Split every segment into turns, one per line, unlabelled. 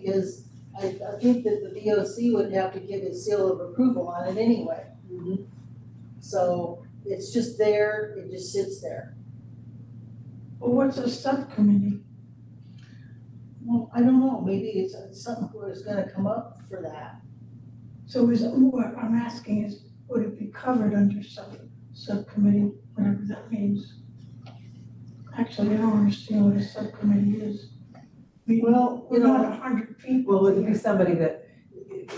because I, I think that the VOC would have to give its seal of approval on it anyway. Mm-hmm. So it's just there, it just sits there.
Well, what's a subcommittee?
Well, I don't know, maybe it's something where it's gonna come up for that.
So is, what I'm asking is, would it be covered under sub, subcommittee, whatever that means? Actually, I don't understand what a subcommittee is. We,
Well,
we're not a hundred people.
Well, it'd
here.
be somebody that,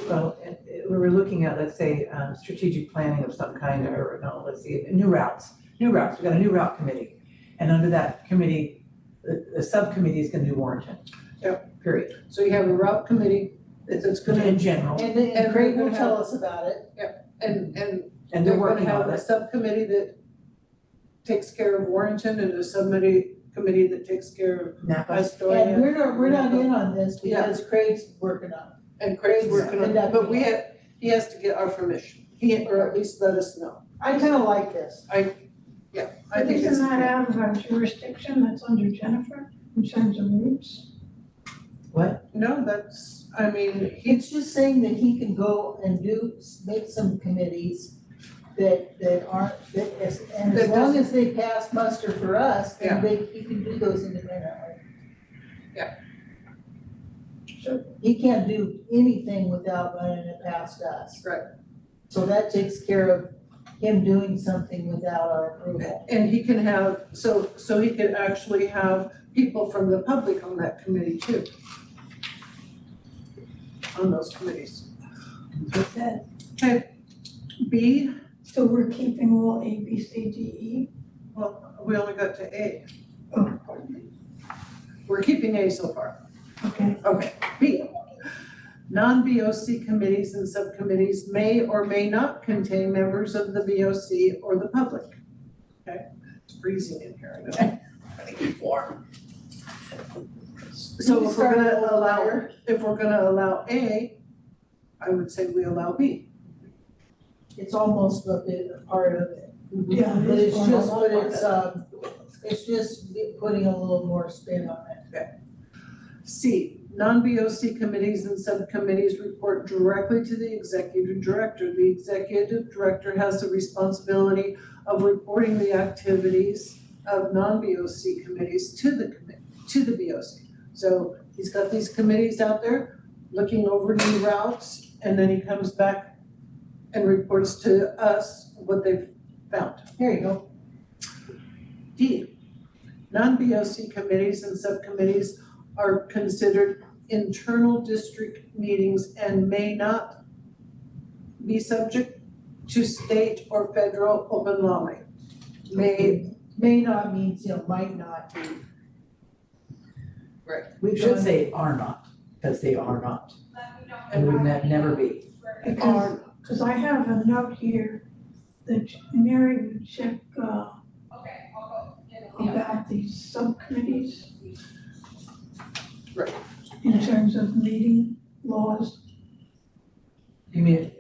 well, it- it- we were looking at, let's say, um, strategic planning of some kind, or no, let's see, new routes, new routes, we've got a new route committee. And under that committee, the, the subcommittee is gonna do Warrenton. Yep. Period,
So you have a route committee that- that's gonna,
in general,
And then
And
Craig
we're
will
gonna
tell us about it.
and, and
and they're
they're gonna
working
have
on
a
this.
subcommittee that takes care of Warrington and a subcommittee, committee that takes care of
Napa,
And
Astoria.
we're not, we're not in on this because Craig's working on it.
And Craig's working on it, but we have, he has to get our permission, he, or at least let us know.
I kinda like this.
I think it's.
Isn't that out of our jurisdiction, that's under Jennifer, in terms of roots?
No, that's, I mean, he,
It's just saying that he can go and do, make some committees that, that aren't, that as, and as
That
long as they pass muster for us, then
Yeah.
they, he can do those independently.
Yeah.
Sure. He can't do anything without running it past us.
Right.
So that takes care of him doing something without our approval.
and he can have, so, so he could actually have people from the public on that committee too. On those committees.
that's it.
B,
So we're keeping all A, B, C, D, E?
well, we only got to A.
Oh, pardon me.
We're keeping A so far.
Okay,
Okay, B. Non-BOC committees and subcommittees may or may not contain members of the BOC or the public. Okay, it's freezing in here, I know. I think it's warm. So if we're gonna allow, if we're gonna allow A, I would say we allow B.
It's almost a bit, a part of it.
yeah, it
But
is
it's
formal.
just, but it's, um, it's just putting a little more spin on it.
C, non-BOC committees and subcommittees report directly to the executive director. The executive director has the responsibility of reporting the activities of non-BOC committees to the commit, to the BOC. So he's got these committees out there looking over new routes, and then he comes back and reports to us what they've found.
There you go.
D, non-BOC committees and subcommittees are considered internal district meetings and may not be subject to state or federal open law. May,
May not means, you know, might not be.
Right.
We
We've
should
done,
say are not, because they are not, and would ne- never be.
Because, because I have a note here that Mary would check, uh,
Okay, I'll go.
about these subcommittees.
Right.
In terms of meeting laws,
You mean,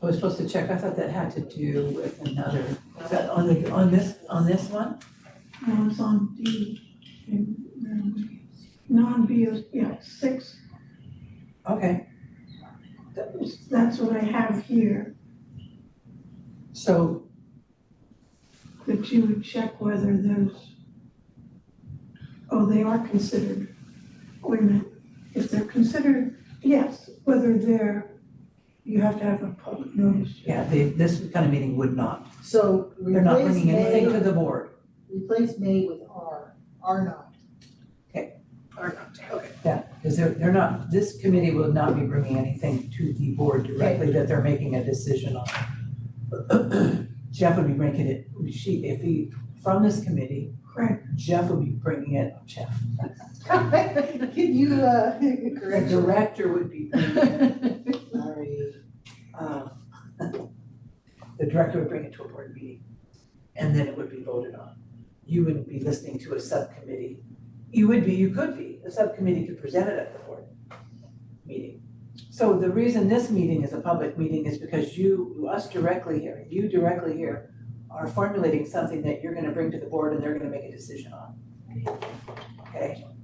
I was supposed to check, I thought that had to do with another, is that on the, on this, on this one?
laws on the, um, non-BOC, yeah, six,
Okay,
that was- that's what I have here,
so,
that you would check whether those, oh, they are considered, wait a minute, if they're considered, yes, whether they're, you have to have a public notice.
yeah, they, this kind of meeting would not,
so
they're not
replace
bringing anything to
May,
the board,
replace May with R, R not.
are not, okay.
because they're, they're not, this committee will not be bringing anything to the board directly that they're making a decision on. Jeff would be bringing it, she, if he, from this committee,
Correct,
Jeff would be bringing it, Jeff,
Can you, uh,
the
correct?
director would be bringing it. Sorry. Uh, The director would bring it to a board meeting, and then it would be voted on. You wouldn't be listening to a subcommittee. You would be, you could be, a subcommittee could present it at the board meeting. So the reason this meeting is a public meeting is because you, us directly here, you directly here are formulating something that you're gonna bring to the board and they're gonna make a decision on. Okay,